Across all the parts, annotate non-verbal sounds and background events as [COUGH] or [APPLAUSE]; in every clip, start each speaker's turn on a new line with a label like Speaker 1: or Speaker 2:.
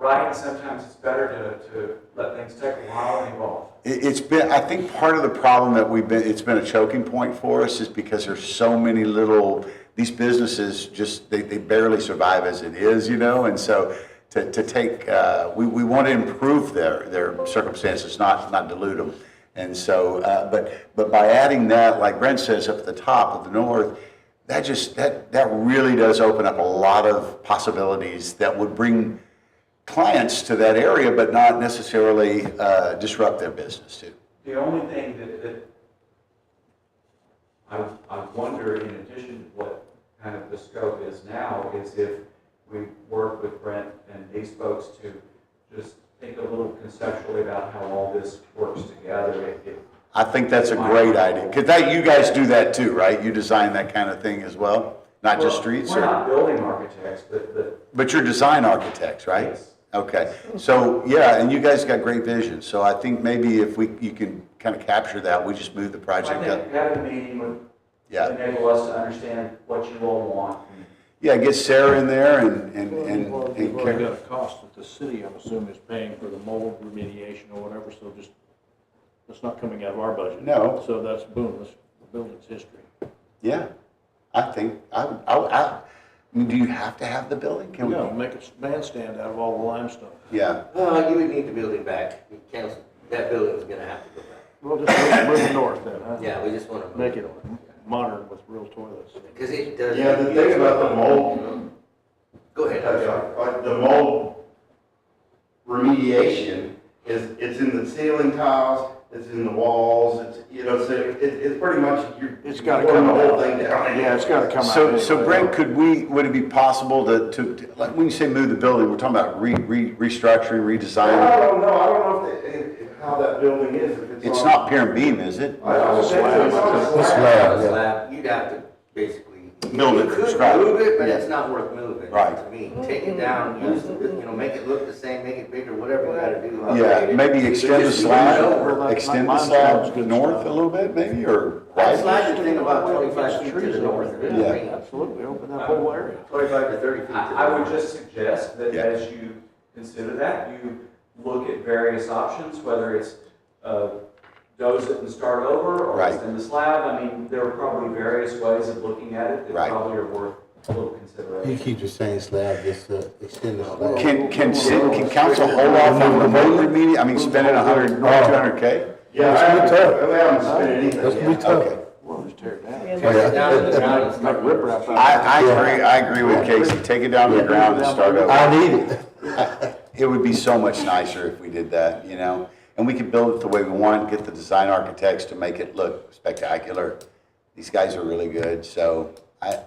Speaker 1: like sometimes it's better to, to let things take a while and evolve.
Speaker 2: It- It's been, I think part of the problem that we've been, it's been a choking point for us is because there's so many little, these businesses just, they, they barely survive as it is, you know? And so to, to take, uh, we, we want to improve their, their circumstances, not, not dilute them. And so, uh, but, but by adding that, like Brent says, up at the top of the north, that just, that, that really does open up a lot of possibilities that would bring clients to that area, but not necessarily uh, disrupt their business too.
Speaker 1: The only thing that, that I, I wonder, in addition to what kind of the scope is now, is if we work with Brent and these folks to just think a little conceptually about how all this works together. It- it-
Speaker 2: I think that's a great idea, because that, you guys do that too, right? You design that kind of thing as well, not just streets,
Speaker 1: We're
Speaker 2: or-
Speaker 1: not building architects, but, but
Speaker 2: but you're design architects, right?
Speaker 1: Yes.
Speaker 2: Okay, so, yeah, and you guys got great vision, so I think maybe if we, you can kind of capture that, we just move the
Speaker 1: I
Speaker 2: project up.
Speaker 1: think having a meeting would
Speaker 2: Yeah,
Speaker 1: enable us to understand what you all want. and
Speaker 2: yeah, get Sarah in there and, and,
Speaker 3: Well,
Speaker 2: and.
Speaker 3: You've already
Speaker 2: and
Speaker 3: you've already
Speaker 2: Karen.
Speaker 3: got a cost that the city, I'm assuming, is paying for the mold remediation or whatever, so just, that's not coming out of our budget.
Speaker 2: No.
Speaker 3: So that's boom, that's the building's history.
Speaker 2: Yeah, I think, I, would- I, would- I, I mean, do you have to have the building? Can we?
Speaker 3: No, make a bandstand out of all the limestone.
Speaker 2: Yeah,
Speaker 4: Well, you would need the building back, You council, that building's gonna have to go back.
Speaker 3: We'll just move- move it north then, huh?
Speaker 4: Yeah, we just wanna. move
Speaker 3: Make it modern with real toilets.
Speaker 4: Cause it does.
Speaker 5: Yeah, the thing about the mold,
Speaker 4: Go ahead, I'm sorry.
Speaker 5: uh, the mold remediation is, it's in the ceiling tiles, it's in the walls, it's, you know, so it, it's pretty much, you're.
Speaker 3: It's gotta
Speaker 5: you're
Speaker 3: come
Speaker 5: pouring The whole
Speaker 3: out.
Speaker 5: thing down.
Speaker 3: Yeah, it's gotta come out.
Speaker 2: So, so Brent, could we, would it be possible to, to, to- like, when you say move the building, we're talking about re, re, restructuring,
Speaker 5: I
Speaker 2: redesigning?
Speaker 5: don't know, I don't know if, they- if, if how that building is, if it's on.
Speaker 2: It's not pier and beam, is it?
Speaker 5: I don't think so. It's on a
Speaker 2: It's
Speaker 5: slab.
Speaker 2: slab, yeah.
Speaker 4: Slab, You'd have to basically.
Speaker 2: Build it
Speaker 4: You
Speaker 2: from
Speaker 4: could
Speaker 2: scratch.
Speaker 4: Move it, but
Speaker 2: Yeah.
Speaker 4: it's not worth moving.
Speaker 2: Right.
Speaker 4: To me, take it down, use the, you know, make it look the same, make it bigger, whatever you gotta do. upgrade
Speaker 2: Yeah,
Speaker 4: it.
Speaker 2: maybe
Speaker 4: You
Speaker 2: extend the
Speaker 4: just move it over.
Speaker 2: slab,
Speaker 3: over.
Speaker 2: extend the
Speaker 3: Mine sounds
Speaker 2: slab
Speaker 3: good.
Speaker 2: north a little bit, maybe, or
Speaker 4: That
Speaker 2: right?
Speaker 4: slide would thing about twenty-five feet to the north. of it.
Speaker 2: Yeah.
Speaker 4: I mean,
Speaker 3: Absolutely, open that whole area.
Speaker 4: Twenty-five to thirty feet to the
Speaker 1: I, I would
Speaker 4: north.
Speaker 1: just suggest that
Speaker 2: Yeah.
Speaker 1: as you consider that, you look at various options, whether it's, uh, doze it and start over, or it's
Speaker 2: Right.
Speaker 1: in the slab, I mean, there are probably various ways of looking at it that
Speaker 2: Right.
Speaker 1: probably are worth a little consideration.
Speaker 6: You keep the same slab, just uh, extend the slab.
Speaker 2: Can, can, ci- can council hold off on the vote meeting, I mean, spending a hundred, two hundred K?
Speaker 5: Yeah, I haven't, I haven't spent
Speaker 6: That's
Speaker 5: anything yet.
Speaker 6: pretty
Speaker 2: Okay.
Speaker 6: tough.
Speaker 3: Well, just tear it down.
Speaker 7: Yeah.
Speaker 4: Tear it down to the ground and
Speaker 3: Make
Speaker 4: start over.
Speaker 3: riprap out
Speaker 2: I, I agree, I agree with Casey, take it down to the ground and start over.
Speaker 6: I need it.
Speaker 2: [LAUGHS] It would be so much nicer if we did that, you know? And we could build it the way we want, get the design architects to make it look spectacular. These guys are really good, so I,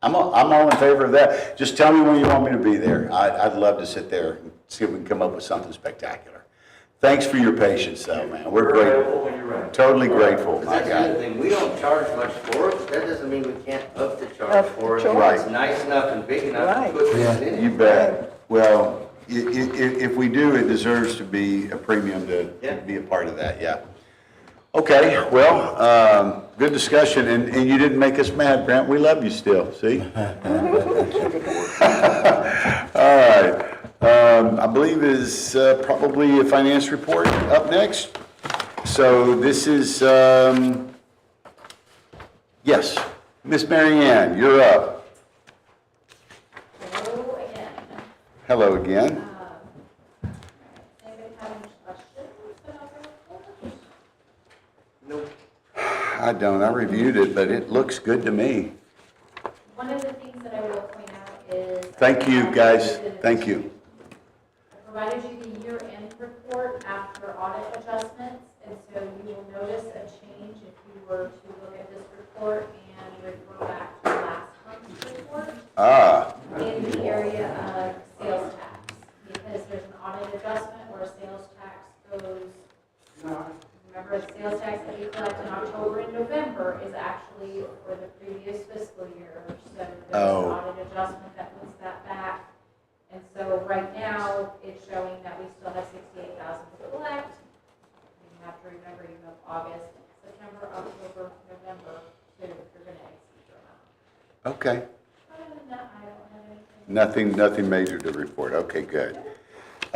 Speaker 2: I'm, all- I'm all in favor of that. Just tell me when you want me to be there. I, I'd love to sit there and see if we can come up with something spectacular. Thanks for your patience though, man. We're
Speaker 1: You're
Speaker 2: grateful,
Speaker 1: Available when you're ready.
Speaker 2: totally grateful,
Speaker 4: But
Speaker 2: my
Speaker 4: That's the other
Speaker 2: guy.
Speaker 4: thing, we don't charge much for it, but that doesn't mean we can't up the charge
Speaker 7: Up
Speaker 4: for it.
Speaker 7: the
Speaker 4: if It's
Speaker 2: charge.
Speaker 4: nice enough and big enough
Speaker 7: Right.
Speaker 4: to put
Speaker 6: Yeah.
Speaker 4: things in
Speaker 2: You
Speaker 4: it.
Speaker 2: bet. Well, i- i- i- if we do, it deserves to be a premium to to
Speaker 4: Yeah.
Speaker 2: be a part of that, yeah. Okay, well, um, good discussion, and, and you didn't make us mad, Brent, we love you still, see? [LAUGHS] All right, um, I believe is uh, probably a finance report up next. So this is, um, yes, Miss Mary Ann, you're up.
Speaker 8: Hello again.
Speaker 2: Hello again.
Speaker 8: Anybody have any questions about the report?
Speaker 2: I don't, I reviewed it, but it looks good to me.
Speaker 8: One of the things that I will point out is.
Speaker 2: Thank you, guys, thank you.
Speaker 8: I provided you the year-end report after audit adjustments, and so you will notice a change if you were to look at this report and refer back to last month's report.
Speaker 2: Ah,
Speaker 8: in the area of sales tax, because there's an audit adjustment where sales tax goes, remember, the sales tax that we collect in October and November is actually for the previous fiscal year, so there's an
Speaker 2: Oh.
Speaker 8: audit adjustment that puts that back. And so right now, it's showing that we still have sixty-eight thousand to collect. You have to remember, you have August, September, October, November, so you're gonna exceed your amount.
Speaker 2: okay.
Speaker 8: Other than that, I don't have anything.
Speaker 2: Nothing, nothing major to report. Okay, good.